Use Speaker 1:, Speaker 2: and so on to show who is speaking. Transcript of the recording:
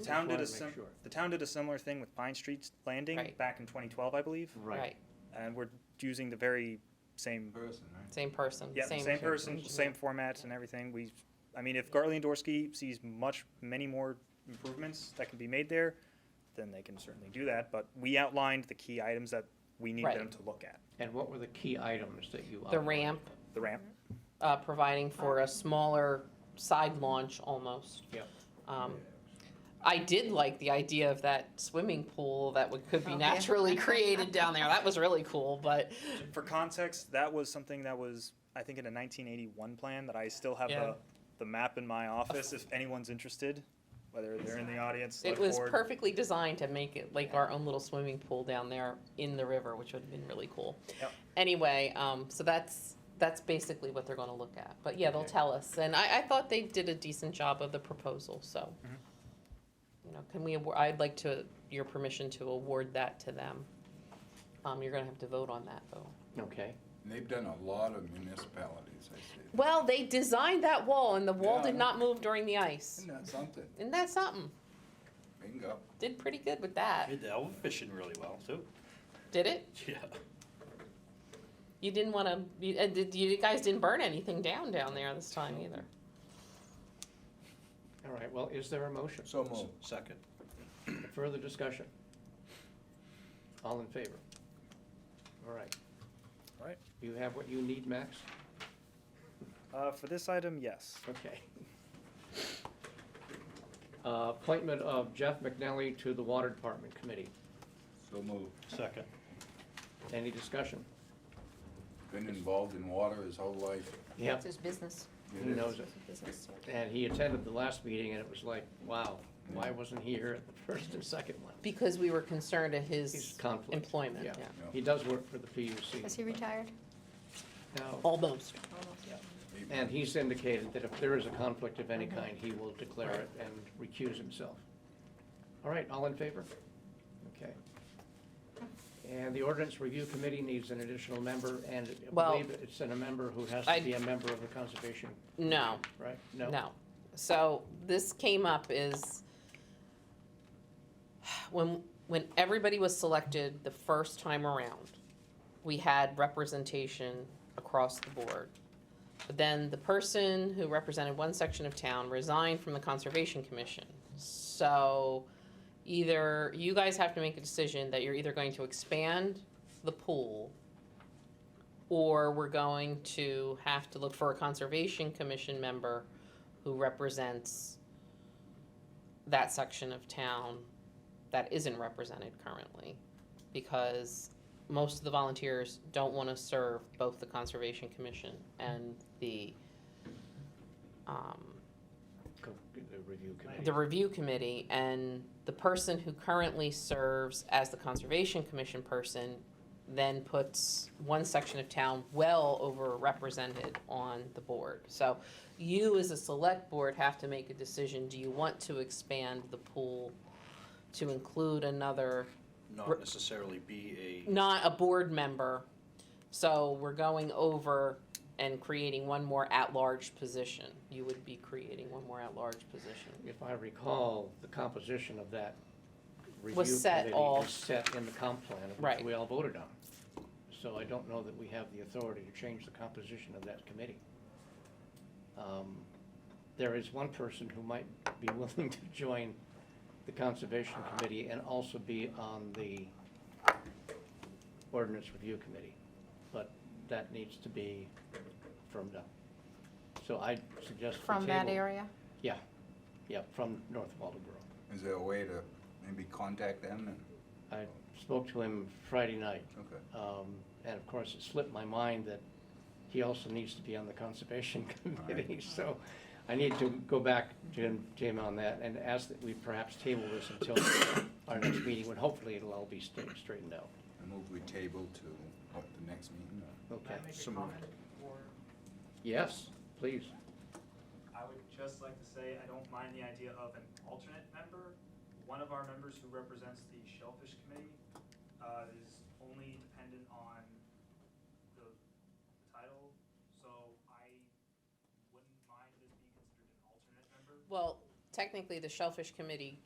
Speaker 1: town did a
Speaker 2: Just
Speaker 1: sim,
Speaker 2: wanted to make sure.
Speaker 1: the town did a similar thing with Pine Street's Landing
Speaker 3: Right.
Speaker 1: back in twenty twelve, I believe,
Speaker 3: right,
Speaker 1: and we're using the very same,
Speaker 4: Person, right?
Speaker 3: same person,
Speaker 1: yeah,
Speaker 3: same.
Speaker 1: same person,
Speaker 3: engineer.
Speaker 1: same formats and everything. We, I mean, if Gartley and Dorsey sees much, many more improvements that can be made there, then they can certainly do that, but we outlined the key items that we need
Speaker 3: Right.
Speaker 1: them to look at.
Speaker 2: And what were the key items that you?
Speaker 3: The
Speaker 2: outlined?
Speaker 3: ramp,
Speaker 1: The ramp,
Speaker 3: uh, providing for a smaller side launch almost.
Speaker 2: Yep.
Speaker 3: Um, I did like the idea of that swimming pool that would, could be
Speaker 5: Oh, yeah.
Speaker 3: naturally created down there. That was really cool, but
Speaker 1: for context, that was something that was, I think, in a nineteen eighty-one plan that I still have
Speaker 3: Yeah.
Speaker 1: the, the map in my office if anyone's interested, whether they're in the audience,
Speaker 3: it
Speaker 1: select
Speaker 3: was
Speaker 1: board.
Speaker 3: perfectly designed to make it like our own little swimming pool down there in the river, which would have been really cool.
Speaker 1: Yep.
Speaker 3: Anyway, um, so that's, that's basically what they're gonna look at. But yeah, they'll
Speaker 2: Okay.
Speaker 3: tell us. And I, I thought they did a decent job of the proposal, so. You know, can we, awar- I'd like to, your permission to award that to them. Um, you're gonna have to vote on that though.
Speaker 2: Okay,
Speaker 4: And they've done a lot of municipalities, I see.
Speaker 3: Well, they designed that wall and the wall
Speaker 4: Yeah, I
Speaker 3: did
Speaker 4: know.
Speaker 3: not move during the ice.
Speaker 4: Isn't that something?
Speaker 3: Isn't that something?
Speaker 4: Bingo.
Speaker 3: Did pretty good with that.
Speaker 6: Did the elf fishing really well too.
Speaker 3: Did it?
Speaker 6: Yeah.
Speaker 3: You didn't wanna, you, uh, did, you guys didn't burn anything down down there this time either.
Speaker 2: all right, well, is there a motion?
Speaker 4: So moved.
Speaker 6: Second.
Speaker 2: Further discussion? All in favor? All right.
Speaker 1: All right.
Speaker 2: You have what you need, Max?
Speaker 1: Uh, for this item, yes.
Speaker 2: Okay. Uh, Appointment of Jeff McNally to the Water Department Committee.
Speaker 4: So moved.
Speaker 6: Second.
Speaker 2: Any discussion?
Speaker 4: Been involved in water his whole life.
Speaker 2: Yep,
Speaker 5: It's his business.
Speaker 4: It
Speaker 2: he
Speaker 4: is.
Speaker 2: knows it.
Speaker 5: Business, yeah.
Speaker 2: And he attended the last meeting, and it was like, wow, why wasn't he here at the first and second one?
Speaker 3: Because we were concerned of
Speaker 2: He's
Speaker 3: his
Speaker 2: conflict.
Speaker 3: employment, yeah.
Speaker 2: Yeah. He does work for the PUC.
Speaker 5: Is he retired?
Speaker 2: No,
Speaker 3: Almost.
Speaker 2: and he's indicated that if there is a conflict of any kind, he will declare it and recuse himself. All right, all in favor? Okay. And the ordinance review committee needs an additional member, and I
Speaker 3: Well-
Speaker 2: believe it's in a member who has
Speaker 3: I-
Speaker 2: to be a member of the conservation,
Speaker 3: No,
Speaker 2: right?
Speaker 3: no. So this came up is when, when everybody was selected the first time around, we had representation across the board. But then the person who represented one section of town resigned from the Conservation Commission. So either you guys have to make a decision that you're either going to expand the pool or we're going to have to look for a Conservation Commission member who represents that section of town that isn't represented currently. Because most of the volunteers don't want to serve both the Conservation Commission and the, um,
Speaker 2: Co- The review
Speaker 3: the
Speaker 2: committee.
Speaker 3: review committee and the person who currently serves as the conservation commission person then puts one section of town well overrepresented on the board. So you as a select board have to make a decision, do you want to expand the pool to include another, Re-
Speaker 6: Not necessarily be a.
Speaker 3: not a board member? So we're going over and creating one more at-large position. You would be creating one more at-large position.
Speaker 2: If I recall, the composition of that review
Speaker 3: Was set
Speaker 2: committee
Speaker 3: all-
Speaker 2: is set in the comp plan, which
Speaker 3: Right.
Speaker 2: we all voted on. So I don't know that we have the authority to change the composition of that committee. Um, There is one person who might be willing to join the Conservation Committee and also be on the Ordinance Review Committee, but that needs to be firmed up. So I suggest we
Speaker 5: From that
Speaker 2: table-
Speaker 5: area?
Speaker 2: yeah, yeah, from North Waldeboro.
Speaker 4: Is there a way to maybe contact them and,
Speaker 2: I spoke to him Friday night,
Speaker 4: okay.
Speaker 2: um, and of course, it slipped my mind that he also needs to be on the Conservation Committee, so I need to go back to him, to him on that and ask that we perhaps table this until our next meeting, when hopefully it'll all be straight- straightened out.
Speaker 4: I move we table to, what, the next meeting? or-
Speaker 2: Okay,
Speaker 7: Can I make a
Speaker 4: Some-
Speaker 7: comment, or
Speaker 2: yes, please.
Speaker 7: I would just like to say, I don't mind the idea of an alternate member. One of our members who represents the Shellfish Committee uh, is only dependent on the title, so I wouldn't mind this being considered an alternate member.
Speaker 3: Well, technically, the Shellfish Committee